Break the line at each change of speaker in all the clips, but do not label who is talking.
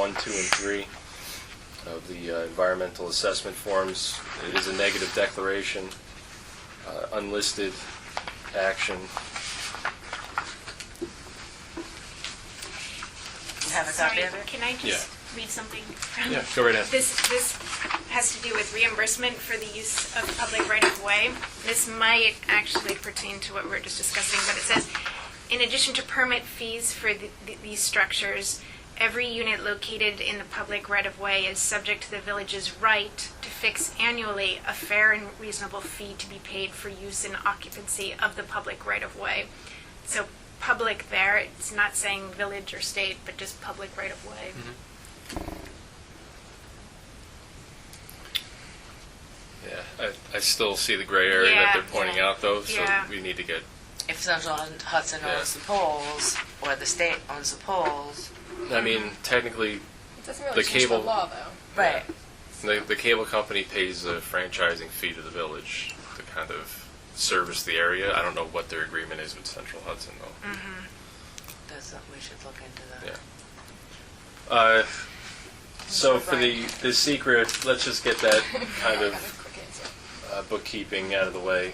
one, two, and three of the uh, environmental assessment forms. It is a negative declaration, uh, unlisted action.
You have a copy
Sorry,
of it?
can I
Yeah.
just read something? from-
Yeah, go right ahead.
This, this has to do with reimbursement for the use of public right-of-way. This might actually pertain to what we we're just discussing, but it says, in addition to permit fees for the- the- these structures, every unit located in the public right-of-way is subject to the village's right to fix annually a fair and reasonable fee to be paid for use and occupancy of the public right-of-way. So public there, it's not saying village or state, but just public right of way.
Yeah, I, I still see the gray area that
Yeah,
they're pointing
yeah.
out, though, so
Yeah.
we need to get,
If Central Hudson owns the poles, or the state owns the poles,
I mean, technically,
It doesn't really
The
change
cable-
the law, though.
right,
the, the cable company pays a franchising fee to the village to kind of service the area. I don't know what their agreement is with Central Hudson, though.
Mm.
that's, we should look into
Yeah.
that.
Uh, So for the, the secret, let's just get that kind
That was
of
a quick answer.
uh, bookkeeping out of the way.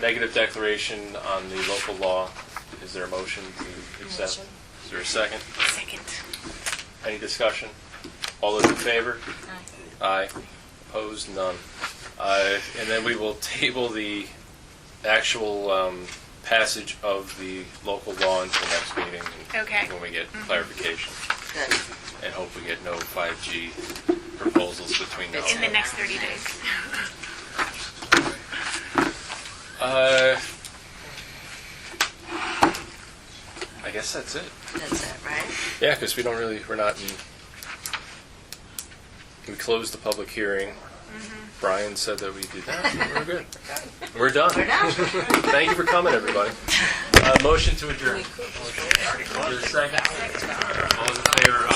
Negative declaration on the local law. Is there a motion to accept?
Motion.
Is there a second?
Second.
Any discussion? All those in favor? Aye. Opposed? None. Uh, And then we will table the actual um, passage of the local law until next meeting.
Okay. Mm-hmm.
When we get clarification.
Good.
and hope we get no 5G proposals between now
In
and
the
then.
next 30 days.
Uh, I guess that's it.
That's it, right?
Yeah, because we don't really, we're not in, we closed the public hearing.
Mm-hmm.
Brian said that we did that, we're good. We're done.
We're done.
Thank you for coming, everybody. Uh, Motion to adjourn. Is there a second? All those in favor, aye.